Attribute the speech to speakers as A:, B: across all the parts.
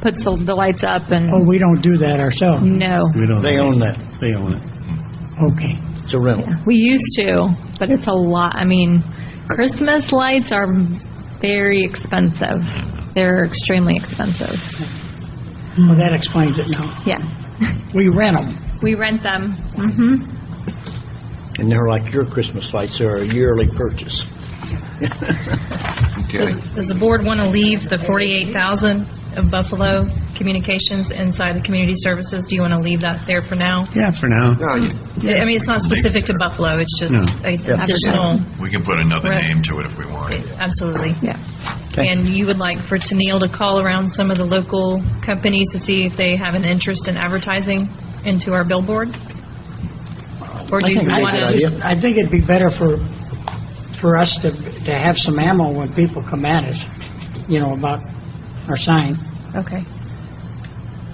A: puts the, the lights up and,
B: Oh, we don't do that ourselves.
A: no.
C: We don't.
D: They own that.
C: They own it.
B: Okay.
D: It's a rental.
A: We used to, but it's a lot, I mean, Christmas lights are very expensive. They're extremely expensive,
B: Well, that explains it now.
A: yeah.
B: We rent them.
A: We rent them, hmm
E: Mm-hmm.
D: And they're like your Christmas lights, they're a yearly purchase.
F: Okay.
E: Does does the board want to leave the 48,000 of Buffalo Communications inside the community services? Do you want to leave that there for now?
C: Yeah, for now.
F: No, you-
E: I mean, it's not specific to Buffalo, it's just
C: No.
E: a- additional,
F: We can put another
E: Right.
F: name to it if we want.
E: absolutely.
A: yeah.
E: And you would like for Tennille to call around some of the local companies to see if they have an interest in advertising into our billboard? Or do you
D: think
E: want
D: Good
E: to?
D: idea.
B: I think it'd be better for, for us to, to have some ammo when people come at us, you know, about our sign.
E: Okay.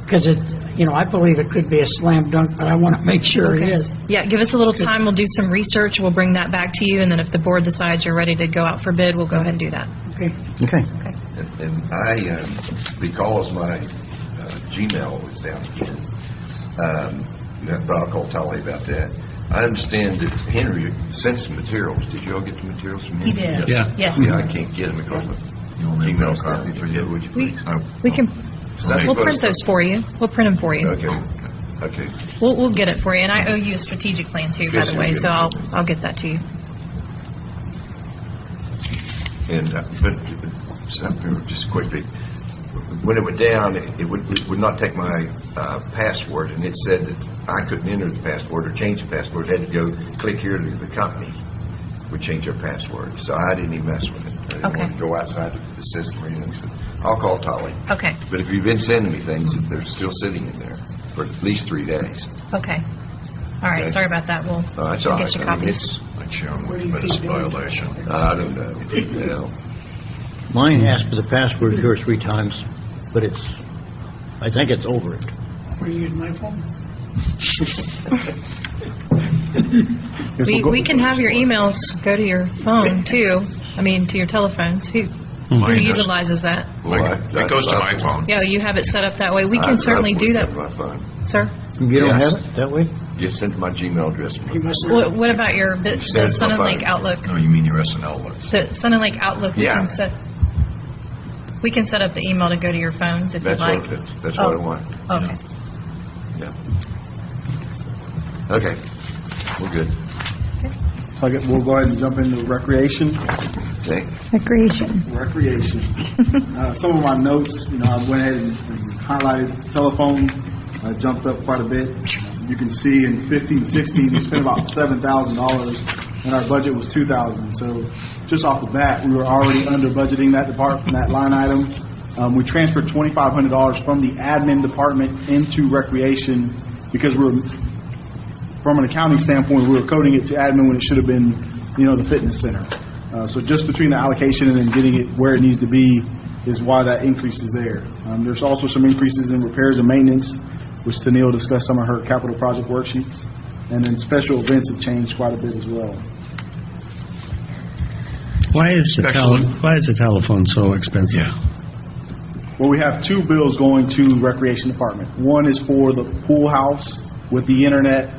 B: Because it, you know, I believe it could be a slam dunk, but I want to make sure it is.
E: Yeah, give us a little time, we'll do some research, we'll bring that back to you, and then if the board decides you're ready to go out for bid, we'll go ahead and do that.
B: Okay.
D: Okay.
F: And- And I, um, because my uh, Gmail is down again, um, you know, but I'll call Tolly about that. I understand that Henry sent some materials. Did you all get the materials from him?
E: He did.
C: Yeah.
E: Yes.
F: Yeah, I can't get them because my Gmail copy for you, would you
E: We-
F: please? Oh,
E: We can,
F: Does that
E: we'll
F: include
E: print those
F: stuff?
E: for you. We'll print them for you.
F: Okay, okay.
E: We'll, we'll get it for you, and I owe you a strategic plan too, by
F: Yes,
E: the
F: you
E: way,
F: do.
E: so I'll, I'll get that to you.
F: And, uh, but, uh, something, just quickly, when it went down, it it would, it would not take my uh, password, and it said that I couldn't enter the password or change the password, had to go click here to the company, would change their password, so I didn't even mess with it. I didn't want
E: Okay.
F: to go outside the system or anything, so I'll call Tolly.
E: Okay,
F: But if you've been sending me things, they're still sitting in there for at least three days.
E: okay. All
F: Okay.
E: right, sorry about that, we'll,
F: Uh, That's all
E: we'll
F: right.
E: get you
F: I mean,
E: copies.
F: it's- I don't know. Well,
D: Mine asked for the password two or three times, but it's, I think it's over it.
B: Want to use my phone?
E: We, we can have your emails go to your phone too, I mean, to your telephones. Who, who
G: Mine does.
E: utilizes that?
F: I-
G: It goes to my phone.
E: Yeah, you have it set up that way. We
F: I-
E: can
F: I
E: certainly do
F: wouldn't
E: that,
F: have my phone.
E: sir.
D: You don't
F: Yes.
D: have it that way?
F: You sent my Gmail address.
B: You must not.
E: What, what about your, bit-
F: Set
E: the
F: it
E: Sun and
F: up.
E: Lake Outlook?
G: No, Oh, you mean your SNL list.
E: The Sun and Lake Outlook, we
F: Yeah.
E: can set, we can set up the email to go to your phones if you'd
F: That's
E: like.
F: what, that's- that's what I
E: Oh.
F: want,
E: Okay.
F: yeah. Okay, we're good.
H: So I get- we'll go ahead and jump into recreation.
F: Okay.
A: Recreation.
H: Recreation. Uh, Some of my notes, you know, I went ahead and and highlighted telephone, uh, jumped up quite a bit. You can see in fifteen, sixteen, we spent about seven thousand dollars, and our budget was two thousand. So just off the bat, we were already under budgeting that department, that line item. Um, We transferred twenty-five hundred dollars from the admin department into recreation because we were from an accounting standpoint, we were coding it to admin when it should have been, you know, the fitness center. Uh, So just between the allocation and then getting it where it needs to be is why that increase is there. Um, There's also some increases in repairs and maintenance, which Tennille discussed some of her capital project worksheets. And then special events have changed quite a bit as well.
C: Why is the
G: Special-
C: tele, why is the telephone so expensive?
G: Yeah.
H: Well, we have two bills going to Recreation Department. One is for the pool house with the internet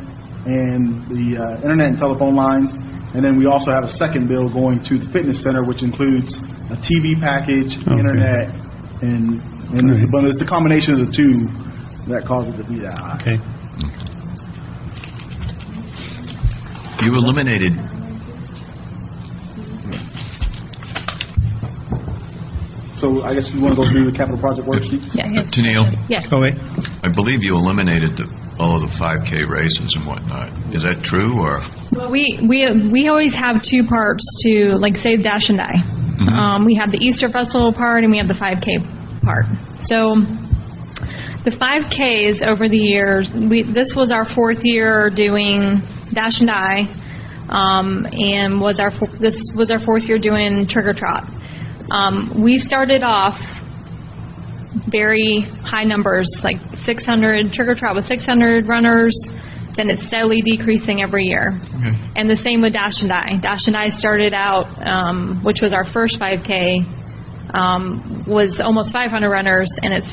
H: and the uh, internet and telephone lines. And then we also have a second bill going to the fitness center, which includes a TV package, internet, and, and it's, but it's the combination of the two that causes it to be that high.
C: Okay.
G: You eliminated,
H: So I guess we want to go through the capital project worksheets?
A: Yes.
G: Tennille,
A: Yes,
C: Oh, wait.
G: I believe you eliminated the, all of the 5K races and whatnot. Is that true, or?
A: Well, we, we, we always have two parts to, like, Save Dash and Die. Um, we have the Easter Festival part and we have the 5K part. So, the 5Ks over the years, we, this was our fourth year doing Dash and Die, um, and was our, fo- this was our fourth year doing Trick or Trot. Um, we started off very high numbers, like 600, Trick or Trot was 600 runners, then it's steadily decreasing every year. And the same with Dash and Die. Dash and Die started out, um, which was our first 5K, um, was almost 500 runners, and it's